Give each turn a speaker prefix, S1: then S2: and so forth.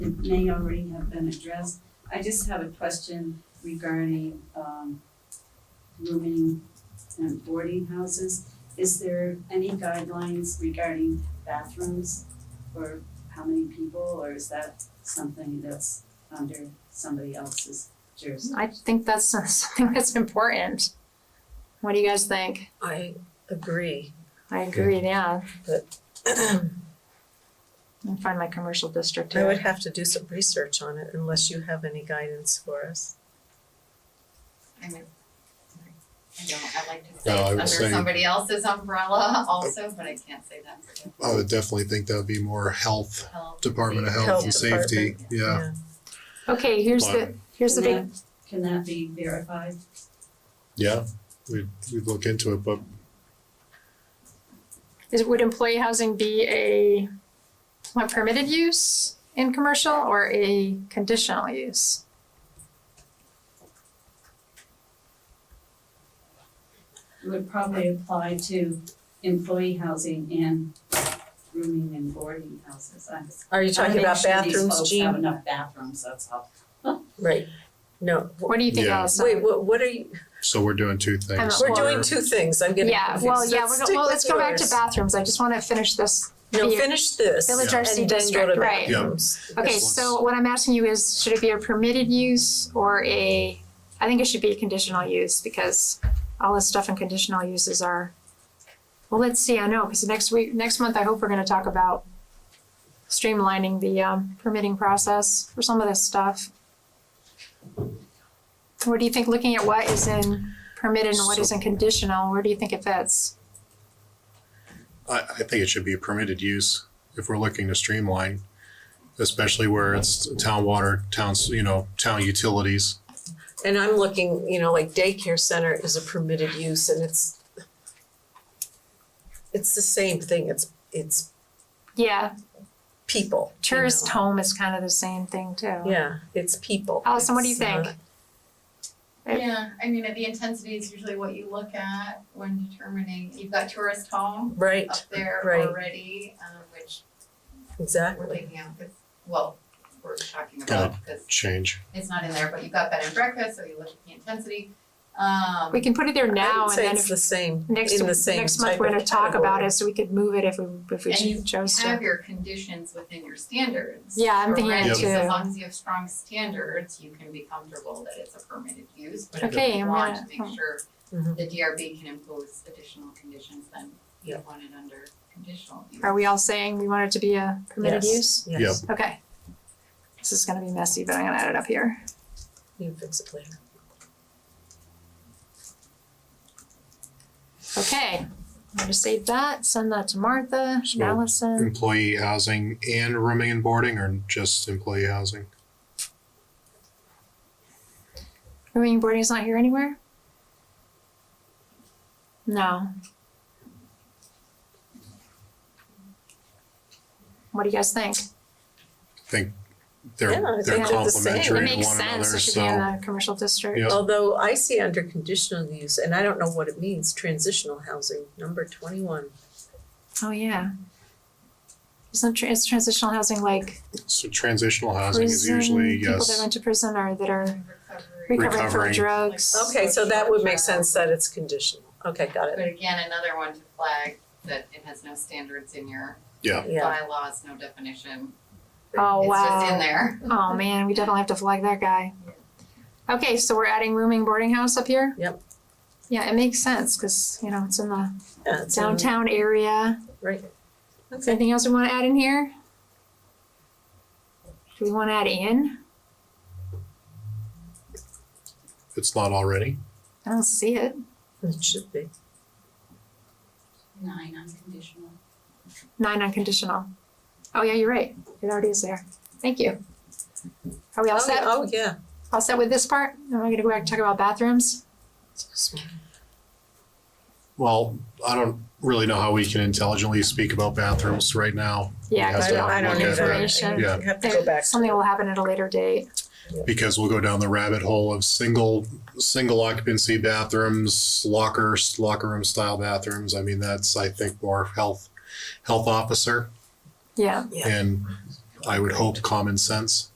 S1: It may already have been addressed. I just have a question regarding, um, rooming and boarding houses. Is there any guidelines regarding bathrooms or how many people, or is that something that's under somebody else's jurisdiction?
S2: I think that's something that's important. What do you guys think?
S3: I agree.
S2: I agree, yeah.
S3: I
S2: I'll find my commercial district
S3: would
S2: here.
S3: have to do some research on it unless you have any guidance for us.
S4: I don't, I like to
S5: No, I
S4: say
S5: was
S4: it's under
S5: saying-
S4: somebody else's umbrella also, but I can't say that for the
S5: I would definitely think that would be more health,
S4: health.
S5: Department of
S3: Health
S5: Health and
S3: Department,
S5: Safety, yeah.
S2: Okay, here's the, here's the big,
S1: Can that be verified?
S5: Yeah, we'd, we'd look into it, but
S2: is, would employee housing be a a permitted use in commercial or a conditional use?
S1: It would probably apply to employee housing and rooming and boarding houses. I was
S3: Are you talking about bathrooms,
S1: I make sure these folks have
S3: Jean?
S1: enough bathrooms, that's all.
S3: Right. No. wh-
S2: What do you think,
S5: Yeah.
S2: Allison?
S3: Wait, what, what are you,
S5: so we're doing two things.
S3: we're doing two things. I'm getting
S2: Yeah,
S3: confused.
S2: well, yeah, we're
S3: Let's
S2: go,
S3: stick
S2: well,
S3: with
S2: let's go back to
S3: yours.
S2: bathrooms. I just wanna finish this
S3: No,
S2: here.
S3: finish this.
S2: Village
S5: Yeah.
S2: RC district, right.
S5: Yeah.
S2: Okay,
S5: Yes.
S2: so what I'm asking you is, should it be a permitted use or a, I think it should be a conditional use because all this stuff in conditional uses are, well, let's see, I know, because next week, next month, I hope we're gonna talk about streamlining the um permitting process for some of this stuff. Where do you think, looking at what is in permitted and what
S5: So-
S2: isn't conditional, where do you think it fits?
S5: I, I think it should be a permitted use if we're looking to streamline, especially where it's town water, towns, you know, town utilities.
S3: And I'm looking, you know, like daycare center is a permitted use and it's it's the same thing. It's it's
S2: Yeah,
S3: people. you
S2: tourist
S3: know.
S2: home is kind of the same thing too.
S3: Yeah, it's people.
S2: Allison, what do you
S3: It's
S2: think?
S3: not-
S2: Right.
S4: Yeah, I mean, the intensity is usually what you look at when determining, you've got tourist home
S3: Right,
S4: up there
S3: right.
S4: already, um, which we're
S3: exactly.
S4: leaving out, 'cause- well, we're talking about, because
S5: Change.
S4: it's not in there, but you've got bed and breakfast, so you look at the intensity. Um,
S2: We can put it there now and then
S3: I would say
S2: if
S3: it's the same, in
S2: next
S3: the same
S2: next month
S3: type
S2: we're
S3: of
S2: gonna talk
S3: category.
S2: about it, so we could move it if we if we
S4: And you
S2: chose to.
S4: have your conditions within your standards.
S2: Yeah, I'm thinking
S4: Correct,
S5: that
S4: so
S2: too.
S4: As long as you have strong standards, you can be comfortable that it's a permitted use, but if
S2: Okay,
S4: you
S2: I'm
S4: want to
S2: gonna-
S4: make sure
S3: Mhm.
S4: the DRB can impose additional conditions, then you
S3: Yeah.
S4: want it under conditional use.
S2: Are we all saying we want it to be a permitted use?
S3: Yes. Yes,
S2: Okay. This is gonna be messy, but I'm gonna add it up here.
S3: you can fix it later.
S2: Okay. I'm gonna save that, send that to Martha,
S5: So-
S2: Allison.
S5: Employee housing and rooming and boarding or just employee housing?
S2: Rooming and boarding is not here anywhere? No. What do you guys think?
S3: Yeah, I
S5: They're,
S3: think
S5: they're
S3: they're the same.
S5: complementary to
S2: It makes
S5: one another,
S2: sense,
S5: so.
S2: it should be in the commercial district.
S5: Yeah.
S3: Although I see under conditional use, and I don't know what it means, transitional housing, number twenty-one.
S2: Oh, yeah. Isn't tr- is transitional housing like
S5: So transitional housing is
S2: prison,
S5: usually,
S2: people that
S5: yes,
S2: went to prison or that are
S4: Recovery.
S2: recovering from
S5: Recovering.
S2: drugs?
S3: Okay, so that would make sense that it's conditional. Okay, got it.
S4: But again, another one to flag that it has no standards in your
S3: Yeah,
S4: bylaws, no definition,
S2: Oh,
S4: it's just in
S2: wow.
S4: there.
S2: Oh, man, we definitely have to flag that guy. Okay, so we're adding rooming boarding house up here?
S3: Yep.
S2: Yeah, it makes sense, cause you know, it's in the
S3: yeah, it's in-
S2: downtown area.
S3: Right.
S2: Is there anything else we wanna add in here? Do we wanna add in?
S5: if it's not already.
S2: I don't see it.
S3: It should be.
S1: Nine unconditional.
S2: Nine unconditional. Oh, yeah, you're right. It already is there. Thank you. Are we all
S3: Oh, yeah,
S2: set?
S3: oh, yeah.
S2: All set with this part? Am I gonna go back and talk about bathrooms?
S5: Well, I don't really know how we can intelligently speak about bathrooms right now.
S2: Yeah, 'cause
S5: I
S2: we
S5: don't- I don't
S2: have
S5: either.
S2: information.
S5: Yeah.
S3: You have to go
S2: There-
S3: back.
S2: Something will happen at a later date.
S5: because we'll go down the rabbit hole of single single occupancy bathrooms, locker locker room style bathrooms. I mean, that's I think more health health officer
S2: Yeah,
S3: Yeah.
S5: and I would hope common sense.